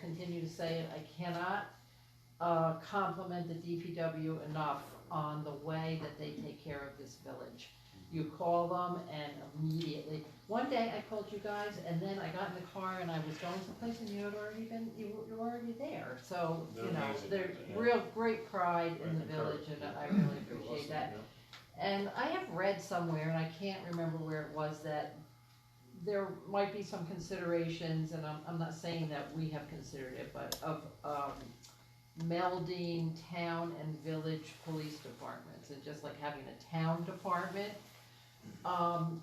continue to say it, I cannot uh, compliment the DPW enough on the way that they take care of this village. You call them and immediately, one day I called you guys and then I got in the car and I was going someplace and you had already been, you were, you were already there. So, you They're know, amazing. there's Yeah. real great pride in the Right, encourage. village and I really appreciate that. And I have read somewhere, and I can't remember where it was, that there might be some considerations, and I'm, I'm not saying that we have considered it, but of, um, melding town and village police departments, and just like having a town department. Um,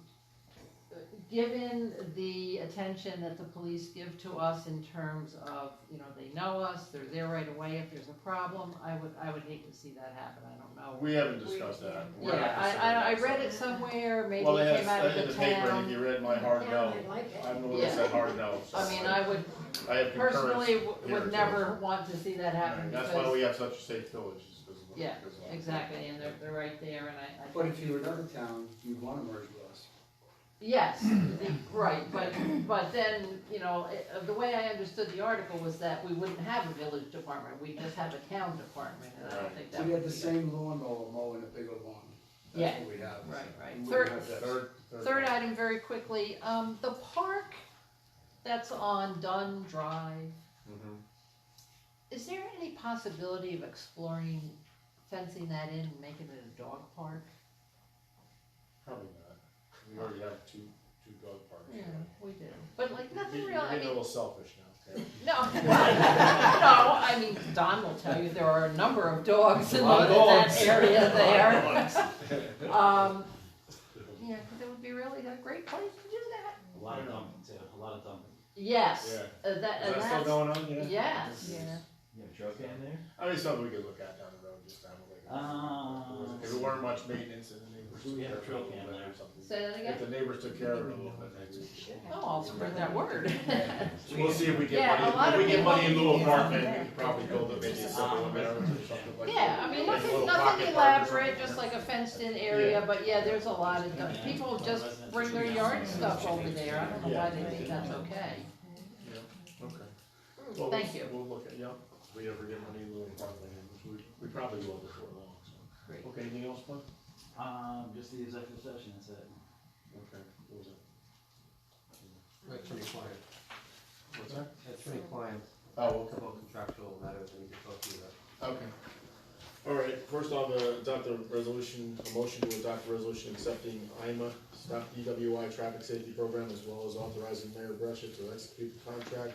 given the attention that the police give to us in terms of, you know, they know us, they're there right away if there's a problem, I would, I would hate to see that happen, I don't know. We haven't discussed that. We're not Yeah, I, I, I considering read it that, somewhere, so- maybe Well, it it came has, out of in the the paper, and if town. you read my hard Yeah, no, I like it. I'm the one that Yeah. said hard no. so I mean, I would I have concurrence personally w- here, too. would never want to see that happen Right, That's why because, we have such a safe village, is because of. Yeah, because of- exactly, and they're, they're right there and I, I. But think if you were another town, you'd wanna merge with us. Yes, the- right, but, but then, you know, it- uh, the way I understood the article was that we wouldn't have a village department, we'd just have a town department, and I don't Right. think that would We be. had the same lawn mower mowing a bigger lawn. That's what we have. Right, right. And we Third- have this. Third, Third item, very quickly, um, the park that's on Dunn Drive, Mhm. Is there any possibility of exploring fencing that in and making it a dog park? Probably not. We already have two, two dog parks. Yeah, we do. But like nothing You're real, you're I getting a mean, little selfish now. okay? no, no, I mean, Don will tell you, there are a number of dogs in A lot of the- that dogs. area A there. lot of dogs. Um, yeah, 'cause it would be really a great place to do that. A lot of dumping too, a lot of dumping. Yes, Yeah. uh, that, Is and that still that's, going on, yeah? yes. Yeah. You have a truck down there? I mean, something we could look at down the road, just to have like. Ah. If it weren't much maintenance and the neighbors. We took have care of it a trail cam little bit there. or something. Say that If again? the neighbors took care of it a little bit, maybe. Oh, I'll spread that word. So We'll see if we Yeah, get a lot money, if we of get money in people- lieu of apartment, we could probably build a maybe a supplemental or something like that. Um, Yeah, I mean, Like a nothing, little pocket nothing park or elaborate, something. just like a fenced-in area, but yeah, there's a lot of, stuff. people just bring their yard stuff over there, I don't know why they think that's okay. Yeah, okay. Mm, Well, Thank we'll- you. We'll look at, yep, if we ever get money in lieu of apartment, which we, we probably will before long, so. Great. Okay, anything else, Mike? Um, just the executive session, that's it. Okay, what was that? That's from the client, What's that? that's from the client, Oh, okay. about contractual matters that we can talk to you about. Okay. All right, first off, uh, adopt a resolution, a motion to adopt a resolution accepting IMA, Stop DWI Traffic Safety Program, as well as authorizing Mayor Brescia to execute the contract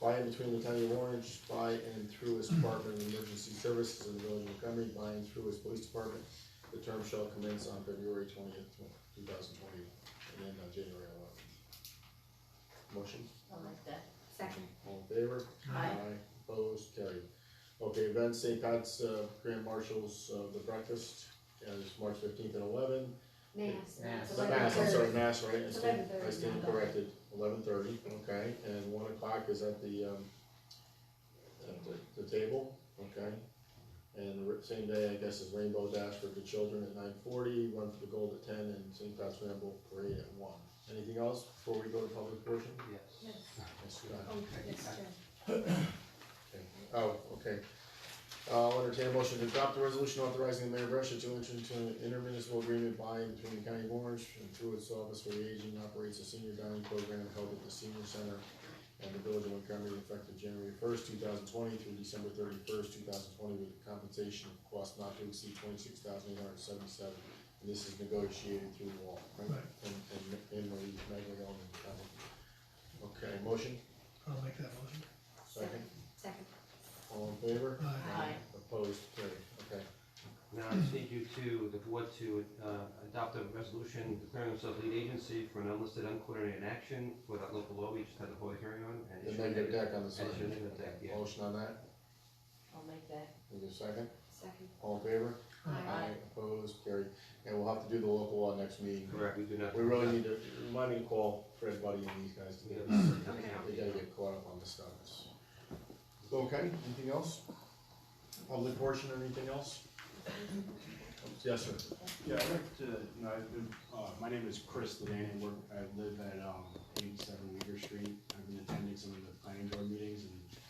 by and between the County of Orange, by and through its Department of Emergency Services and the Village of Montgomery, by and through its Police Department. The term shall commence on February twentieth, two thousand twenty, and then on January eleventh. Motion? I like that. Second. All in favor? Aye. Opposed, carried. Okay, Event St. Pat's uh, Grand Marshals of the Breakfast, uh, is March fifteenth and eleven. Mass. The Mass, I'm sorry, Mass, right, I It's stand, 11:30, I stand not corrected, eleven thirty, okay, and one o'clock is at the, um, at the, the table, okay? And the r- same day, I guess, is Rainbow Dash for the children at nine forty, Run for the Gold at ten, and St. Pat's Ramble Parade at one. Anything else before we go to public portion? Yes. Yes, go ahead. Oh, yes, Jim. Okay. Oh, okay. Uh, I'll entertain a motion to adopt the resolution authorizing the mayor of Russia to enter into an intermunicipal agreement by and between the county of Orange and through its office for the aging operates a senior dining program held at the senior center and the village of Montgomery effective January first, two thousand twenty through December thirty-first, two thousand twenty with compensation of cost not to exceed twenty-six thousand eight hundred seventy-seven. And this is negotiated through the law, right? And, and, and Marie Magley Ellen, um, Okay, motion, I'll make that motion. second, Second. all in favor? Aye. Aye. Opposed, carried, okay. Now, I just need you to, the board to, uh, adopt a resolution declaring themselves lead agency for an unlisted uncoordinated action without local law, we just had a public hearing on. and The issue negative deck on the And issue a side. negative deck, yeah. Motion on that, I'll make that. is there a second? Second. All in favor? Uh, Opposed, carried. And we'll have to do the local law next meeting. Correct, we do not. We really need to, remind me to call Fred Buddy and these guys to We get, have- they Okay. gotta get caught up on this stuff. Okay, anything else? Public portion or anything else? Yes, sir. Yeah, I'd like to, you know, I've been, uh, my name is Chris Levan, I work, I live at, um, eighty-seven Weaver Street. I've been attending some of the planning board meetings and